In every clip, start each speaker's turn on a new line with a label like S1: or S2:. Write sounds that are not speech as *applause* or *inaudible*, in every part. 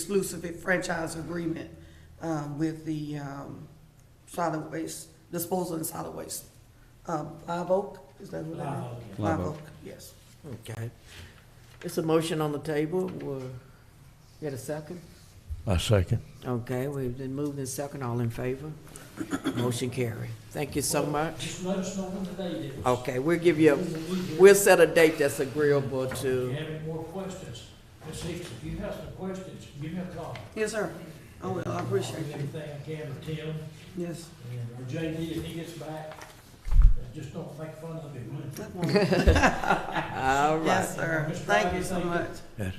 S1: exclusive franchise agreement um, with the um, solid waste, disposal and solid waste. Um, Live Oak, is that what
S2: Live Oak,
S1: I mean?
S3: yeah. Live
S1: Live
S3: Oak.
S1: Oak, yes.
S4: Okay. It's a motion on the table. We'll get a second.
S5: I second.
S4: Okay, we've been moved and second. All in favor? Motion carried. Thank you so much.
S2: Just let us know when the date is.
S4: Okay, we'll give you,
S2: We will be
S4: a-
S2: here.
S4: we'll set a date that's agreeable
S2: If you
S4: to, *laughs*
S2: have any more questions, Ms. Hicks, if you have some questions, give me a call.
S1: Yes, sir. I will, I
S2: I'll
S1: appreciate
S2: do
S1: you.
S2: Everything I can for Tim,
S1: Yes.
S2: and for JD, if he gets back, uh, just don't think fun of him.
S4: all right.
S1: Yes, sir. Thank you so much.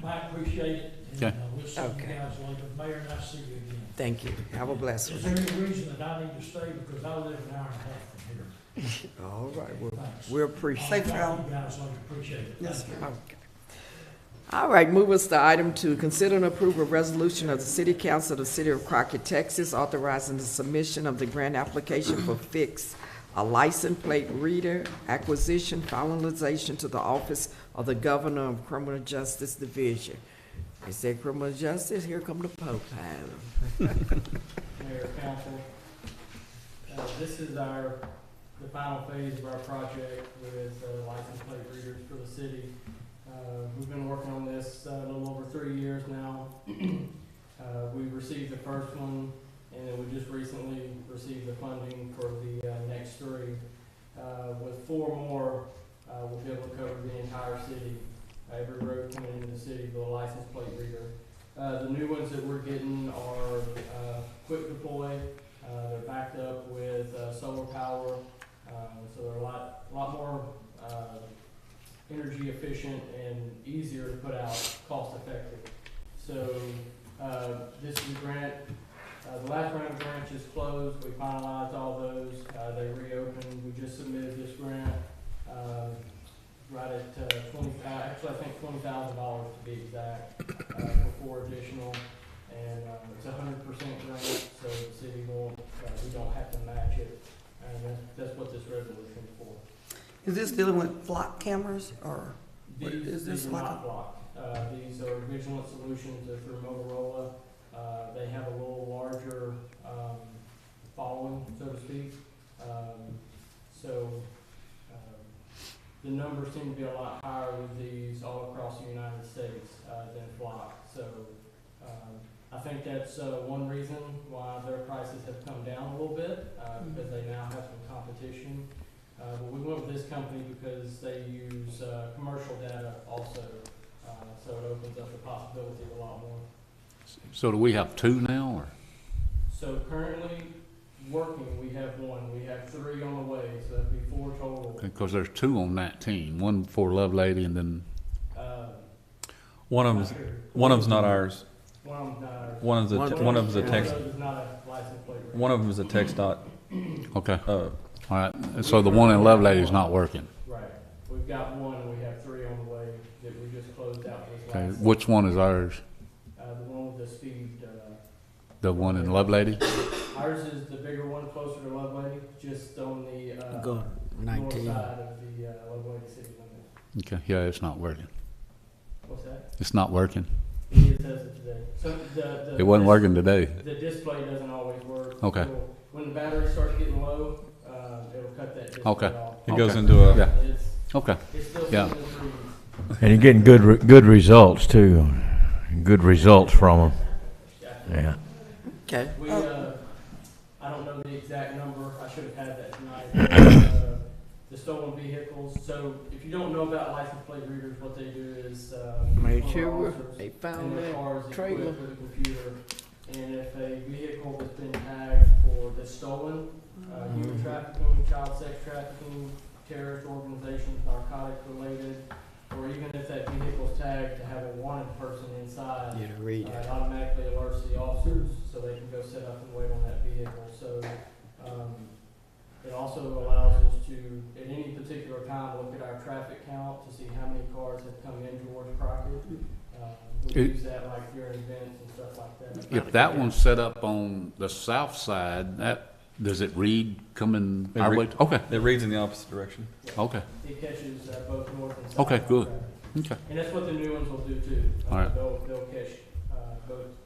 S2: Mike, appreciate it, and
S3: Okay.
S2: uh, we'll see you
S4: Okay.
S2: guys later. Mayor, nice to see you again.
S4: Thank you. Have a blessed
S2: Is
S4: one.
S2: there any reason that I need to stay, because I live an hour and a half from here?
S4: All right, well,
S2: Thanks.
S4: we appreciate.
S1: Safe
S2: Thank
S1: travel.
S2: You guys, I appreciate it.
S1: Yes,
S2: Thank you.
S1: sir.
S4: Okay. All right, move us to item two, consider and approve a resolution of the City Council of the City of Crockett, Texas, authorizing the submission of the grant application for Fix, a license plate reader acquisition finalization to the Office of the Governor of Criminal Justice Division. Is there criminal justice? Here come the Pope.
S6: Mayor, council. Uh, this is our, the final phase of our project with uh, license plate readers for the city. Uh, we've been working on this uh, a little over three years now. Uh, we received the first one, and then we just recently received the funding for the, uh, next three. Uh, with four more, uh, we'll be able to cover the entire city, every road coming into the city with a license plate reader. Uh, the new ones that we're getting are, uh, quick deploy. Uh, they're backed up with, uh, solar power, um, so they're a lot, lot more, uh, energy efficient and easier to put out, cost effective. So, uh, this is a grant, uh, the last round of grants is closed, we finalized all those, uh, they reopened, we just submitted this grant, um, right at, uh, twenty, uh, actually, I think twenty thousand dollars to be exact, uh, for four additional, and, uh, it's a hundred percent grant, so the city will, uh, we don't have to match it, and that's, that's what this resolution is for.
S1: Is this dealing with flock cameras or? What
S6: These,
S1: is this
S6: these are
S1: like
S6: not blocked. Uh, these are Vigilant Solutions, they're through Motorola. Uh, they have a little larger, um, following, so to speak. Um, so, um, the numbers seem to be a lot higher with these all across the United States, uh, than Flock. So, um, I think that's, uh, one reason why their prices have come down a little bit, uh, because they now have some competition. Uh, but we went with this company because they use, uh, commercial data also, uh, so it opens up the possibility a lot more.
S3: So do we have two now, or?
S6: So currently working, we have one, we have three on the way, so that'd be four total.
S3: Because there's two on nineteen, one for Love Lady and then,
S6: Uh,
S7: One of
S6: not
S7: them's,
S6: sure.
S7: one of them's not ours.
S6: One of them's not ours.
S7: One of the
S4: One-
S7: one of the
S6: One
S7: text
S6: of those is not a license plate. reader.
S7: one of them is a text dot.
S3: okay,
S7: Uh,
S3: all right. And So the one in Love Lady's not working.
S6: Right, we've got one, and we have three on the way that we just closed out this
S3: Okay,
S6: last,
S3: which one is ours?
S6: uh, the one with the speed, uh,
S3: The one in Love Lady?
S6: Ours is the bigger one closer to Lovelady, just on the, uh,
S4: Go,
S6: north side
S4: nineteen.
S6: of the, uh, Lovelady city limit.
S3: Okay, yeah, it's not working.
S6: What's that?
S3: It's not working.
S6: It is as of today. So the, the.
S3: It wasn't
S6: dis-
S3: working today.
S6: The display doesn't always work.
S3: Okay.
S6: It'll- When the battery starts getting low, uh, it'll cut that display
S3: Okay.
S6: off.
S7: it goes
S3: Okay.
S7: into a
S3: Yeah.
S6: It's,
S3: Okay,
S6: it's still.
S3: Yeah.
S6: sitting in the trees.
S5: And you're getting good, re- good results too. Good results from them. Yeah.
S4: Okay,
S6: We, uh, I don't know the exact number, I should have had that tonight. Uh, The stolen vehicles, so if you don't know about license plate readers, what they do is, uh. one of
S4: made
S6: the
S4: sure
S6: officers
S4: they
S6: in
S4: found
S6: their
S4: that.
S6: cars equipped
S4: Oh, trailer.
S6: with a computer, and if a vehicle has been tagged for, that's stolen, uh, human trafficking, child sex trafficking, terrorist organizations, narcotic related, or even if that vehicle's tagged to have a wanted person inside,
S4: You to read
S6: uh,
S4: it.
S6: It automatically alerts the officers, so they can go set up and wait on that vehicle, so, um, it also allows us to, at any particular time, look at our traffic count to see how many cars have come in towards Crockett. Uh, We
S3: It-
S6: use that like during events and stuff like that.
S3: if that one's set up on the south side, that, does it read coming
S7: It
S3: our
S7: re-
S3: way? Okay,
S7: it reads in the opposite direction.
S3: okay,
S6: It catches uh, both north and south.
S3: Okay, good.
S6: traffic.
S3: okay.
S6: And that's what the new ones will do too. Uh,
S3: All right.
S6: They'll, they'll catch, uh, both